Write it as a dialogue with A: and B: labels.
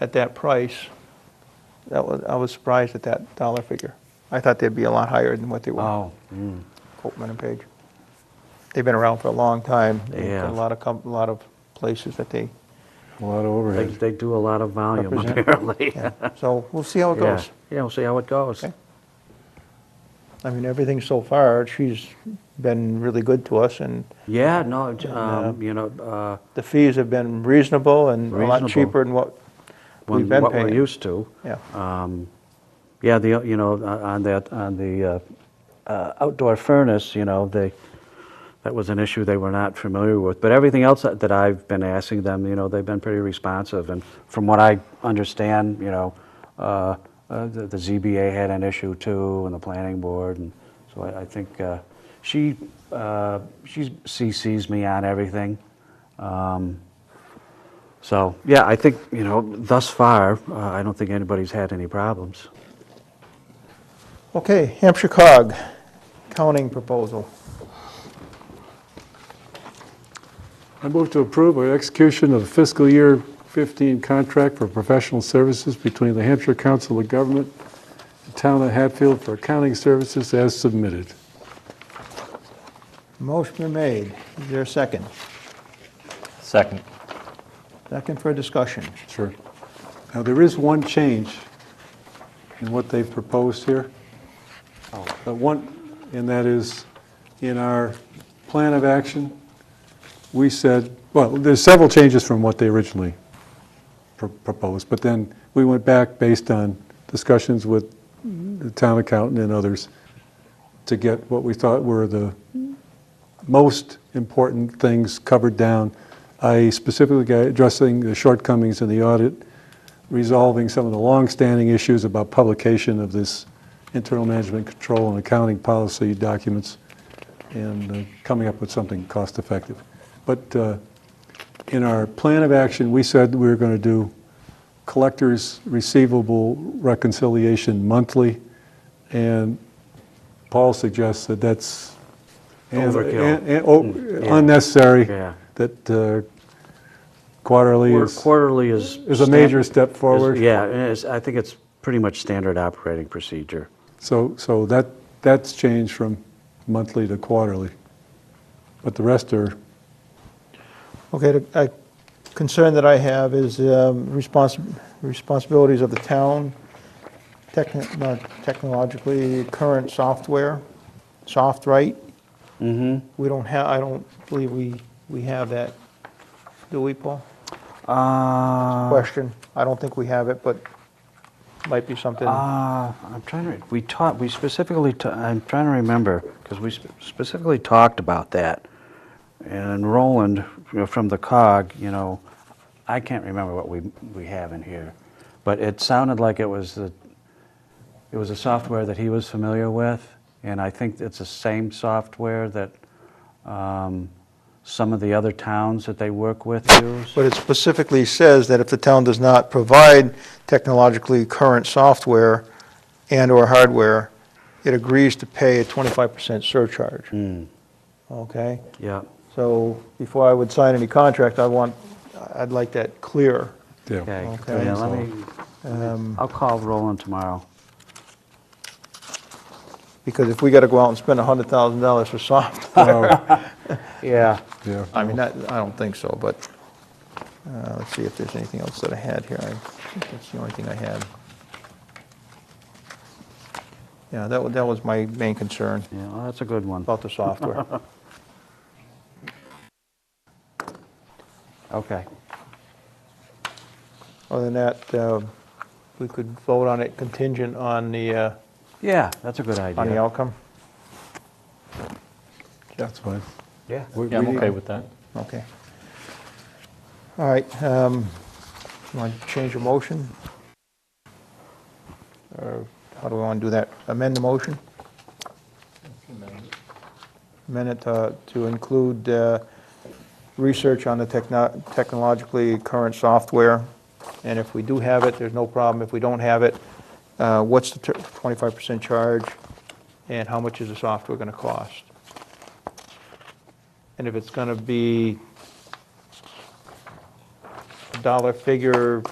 A: at that price, that was, I was surprised at that dollar figure. I thought they'd be a lot higher than what they were,
B: Oh, mm,
A: Copman and Page. They've been around for a long time. They've got
B: Yeah.
A: A lot of, com- a lot of places that they,
C: A lot of
B: they,
C: overhead.
B: they do a lot of volume
A: Represent-
B: apparently.
A: yeah. so we'll see how it
B: Yeah.
A: goes.
B: Yeah, we'll see how it goes.
A: Okay. I mean, everything so far, she's been really good to us, and
B: Yeah, no, j-
A: uh,
B: um, you know, uh,
A: the fees have been reasonable and a lot
B: Reasonable.
A: cheaper than what
B: when-
A: we've been
B: what we're
A: paying.
B: used to.
A: Yeah,
B: Um, Yeah, the, you know, uh, on that, on the uh, uh, outdoor furnace, you know, they, that was an issue they were not familiar with. But everything else that that I've been asking them, you know, they've been pretty responsive. And from what I understand, you know, uh, uh, the the ZBA had an issue too, and the planning board. And so I I think uh, she, uh, she CCs me on everything. Um, So, yeah, I think, you know, thus far, uh, I don't think anybody's had any problems. Uh.
A: okay, Hampshire cog, counting proposal.
C: I move to approve our execution of fiscal year 15 contract for professional services between the Hampshire Council of Government and Town of Hatfield for accounting services as submitted.
A: Motion been made, is there a second?
D: Second.
A: Second for discussion.
C: Sure. Now, there is one change in what they've proposed here. But one, and that is, in our plan of action, we said, well, there's several changes from what they originally pr- proposed, but then we went back based on discussions with the town accountant and others to get what we thought were the most important things covered down, i.e. specifically got- addressing the shortcomings in the audit, resolving some of the longstanding issues about publication of this internal management control and accounting policy documents, and uh, coming up with something cost-effective. But uh, in our plan of action, we said we were going to do collectors receivable reconciliation monthly, and Paul suggests that that's and-
B: Overkill. Hmm.
C: and- and- oh,
B: Yeah.
C: unnecessary,
B: Yeah.
C: that uh, quarterly
B: Quar-
C: is,
B: Quarterly is.
C: is a
B: stan-
C: major
B: is-
C: step forward.
B: Yeah, and it's- I think it's pretty much standard operating procedure.
C: So, so that, that's changed from monthly to quarterly. But the rest are,
A: Okay, the- a concern that I have is um, respons- responsibilities of the town, techni- not technologically, current software, soft right.
B: Mm-hmm.
A: We don't have, I don't believe we, we have that, do we, Paul?
B: Uh,
A: Question, I don't think we have it, but might be something,
B: uh, I'm trying to, re- we taught, we specifically, ta- I'm trying to remember, because we sp- specifically talked about that. And Roland, you know, from the cog, you know, I can't remember what we, we have in here. But it sounded like it was the, it was a software that he was familiar with. And I think it's the same software that um, some of the other towns that they work with use.
A: but it specifically says that if the town does not provide technologically current software and/or hardware, it agrees to pay a 25% surcharge,
B: Hmm,
A: okay?
B: Yeah.
A: So before I would sign any contract, I want, I'd like that clear.
C: yeah.
B: Okay,
A: Okay.
B: yeah, let me,
A: um,
B: I'll call Roland tomorrow.
A: Because if we got to go out and spend $100,000 for software,
B: Yeah.
C: Yeah.
A: I mean, that, I don't think so, but, uh, let's see if there's anything else that I had here. I think that's the only thing I had. Yeah, that was, that was my main concern
B: Yeah, well, that's a good one.
A: about the software.
B: Okay.
A: Other than that, uh, we could vote on it contingent on the, uh,
B: Yeah, that's a good idea.
A: on the outcome?
C: That's fine.
B: Yeah.
C: We-
D: Yeah, I'm
C: we-
D: okay with that.
A: Okay. All right, um, want to change your motion? Or how do we want to do that? Amend the motion? Amend it uh, to include uh, research on the techno- technologically current software, and if we do have it, there's no problem. If we don't have it, uh, what's the ter- 25% charge, and how much is the software going to cost? And if it's going to be a dollar figure